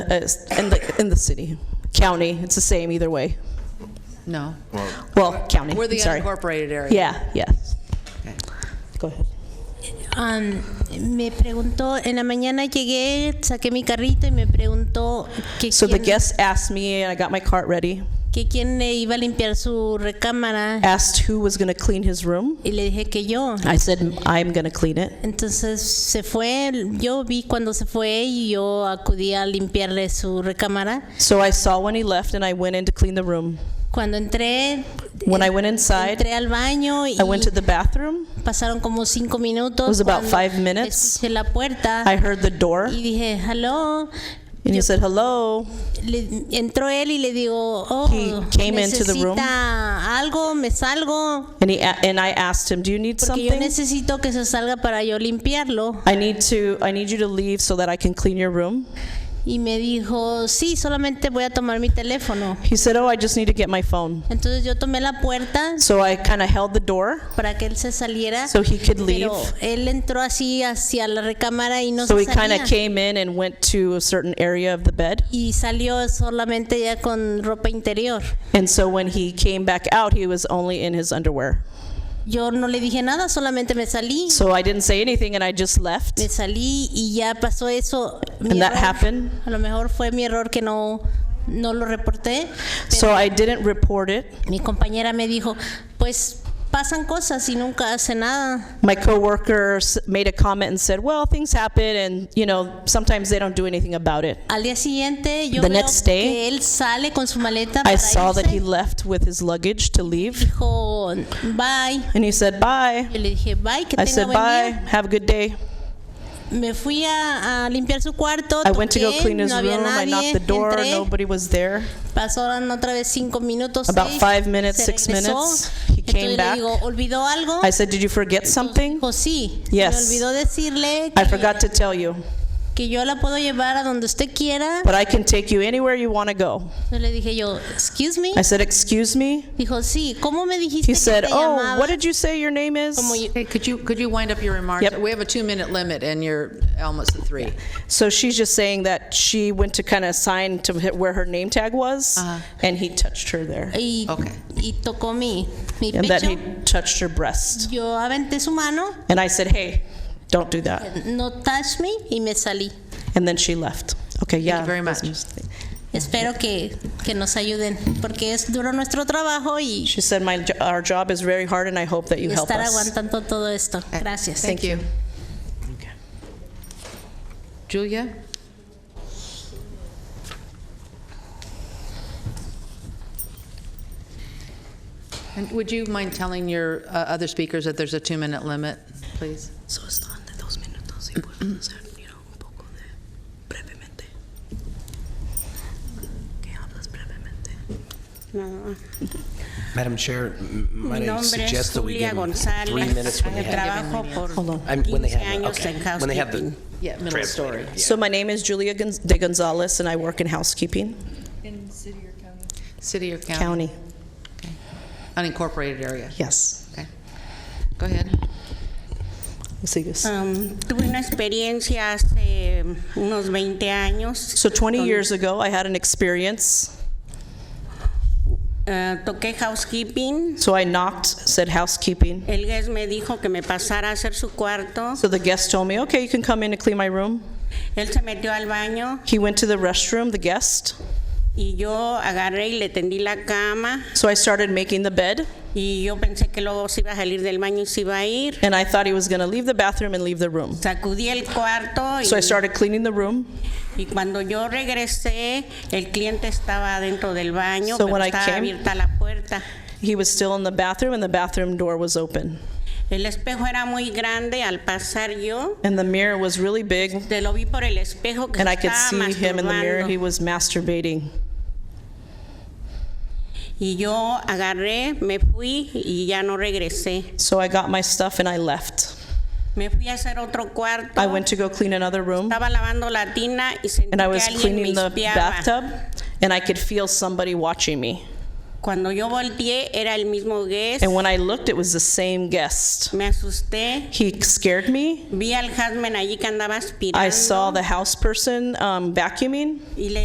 as uh, in the, in the city, county, it's the same either way. No. Well, county, We're the I'm sorry. unincorporated area. Yeah, yes. Go ahead. Am, me preguntó, en la mañana llegué, saqué mi carrito y me preguntó que, So the quién, guest asked me, and I got my cart ready, que quién le iba a limpiar su recámara asked who was going to clean his room. y le dije que yo. I said, I'm going to clean it. Entonces se fue, yo vi cuando se fue y yo acudí a limpiarle su recámara. So I saw when he left, and I went in to clean the room. Cuando entré, When I went inside, entré al baño y I went to the bathroom. pasaron como cinco minutos. It was about cuando five minutes. Escuché la puerta I heard the door, y and dije, hello. he said, hello. Le- entró él y le digo, oh, He came into the necesita room. algo, me salgo, And, he, a- and I asked him, do you need porque yo something? necesito que se salga para yo limpiarlo. I need to, I need you to leave so that I can clean your room. Y me dijo, sí, solamente voy a tomar mi teléfono. He said, oh, I just need to get my phone. Entonces yo tomé la puerta So I kind of held the door para que él se saliera, so he could leave. pero él entró así hacia la recámara y no So he se kind salía. of came in and went to a certain area of the bed. y salió solamente ya con ropa interior. And so when he came back out, he was only in his underwear. Yo no le dije nada, solamente me salí. So I didn't say anything and I just left. me salí y ya pasó eso. Mi And that error- happened. A lo mejor fue mi error que no, no lo reporté. So I didn't report it. Mi compañera me dijo, pues pasan cosas y nunca hace nada. My coworker s- made a comment and said, well, things happen and, you know, sometimes they don't do anything about it. Al día siguiente yo The veo next day, que él sale con su maleta para I saw that irse. he left with his luggage to leave. dijo, bye. And he said, bye. Yo le dije, bye, que I tenga said, buen bye, día. have a good day. Me fui a, a limpiar su cuarto, I went to go toqué, clean his no había room. I knocked nadie, the door, entré, nobody was there. pasaron otra vez cinco minutos, About seis, five minutes, se six regresó. minutes, he Entonces came le back. digo, ¿olvidó algo? I said, did you forget something? Dijo, sí. Yes. Me olvidó decirle I que, forgot to tell you, que yo la puedo llevar a donde usted quiera. but I can take you anywhere you want to go. Yo le dije yo, excuse me. I said, excuse me? Dijo, sí. ¿Cómo me dijiste He que said, te oh, llamaba? what did you say your name Como is? yo- Hey, could you, could you wind up your remarks? Yep. We have a two-minute limit, and you're almost at three. So she's just saying that she went to kind of sign to hit where her name tag was, Uh-huh. and he touched her there. y, Ok. y tocó mi, mi And that pecho. he touched her breast. Yo aventé su mano, And I said, hey, don't do that. no touch me, y me salí. And then she left. Okay, yeah. you very that's much. interesting. Espero que, que nos ayuden, porque es duro nuestro trabajo y She said, my, jo- our job is very hard, and I hope that you help estar us. aguantando todo esto. Eh, Gracias. Uh, Thank you. Okay. Julia? And would you mind telling your uh, other speakers that there's a two-minute limit, please? Solo estaban de dos minutos y pueden hacer you know, un poco de brevemente. ¿Qué hablas brevemente? Madam Chair, m- Mi might I nombre suggest es that we Julia give them three minutes González. when they have, Trabajo por Hold on. 15 I mean, when they have, años en okay, when they have the housekeeping. Yeah, middle story. So my name is Julia Gonz- de Gonzalez, and I work in housekeeping, City or county? county. Unincorporated area. Yes. Okay. Go ahead. Sigues. Um, tuve una experiencia hace unos 20 años. So 20 Con- years ago, I had an experience. eh, toqué housekeeping. So I knocked, said housekeeping. El guest me dijo que me pasara a hacer su cuarto. So the guest told me, okay, you can come in and clean my room. Él se metió al baño He went to the restroom, the guest. y yo agarré y le tendí la cama. So I started making the bed, Y yo pensé que luego se iba a salir del baño y se iba a ir. and I thought he was going to leave the bathroom and leave the room. Sacudí el cuarto y, So I started cleaning the room. y cuando yo regresé, el cliente estaba dentro del baño, So pero when I estaba came- abierta la puerta. He was still in the bathroom, and the bathroom door was open. El espejo era muy grande al pasar yo. And the mirror was really big, Te lo vi por el espejo que and I could see estaba him in the mirror. He masturbando. was masturbating. Y yo agarré, me fui y ya no regresé. So I got my stuff and I left. Me fui a hacer otro cuarto. I went to go clean another room, Estaba lavando la tina y sentí and I que was alguien me cleaning the espiaba. bathtub, and I could feel somebody watching me. Cuando yo volteé era el mismo guest. And when I looked, it was the same guest. Me asusté. He scared me. Vi al Hasman allí que andaba aspirando. I saw the house person um, vacuuming. Y le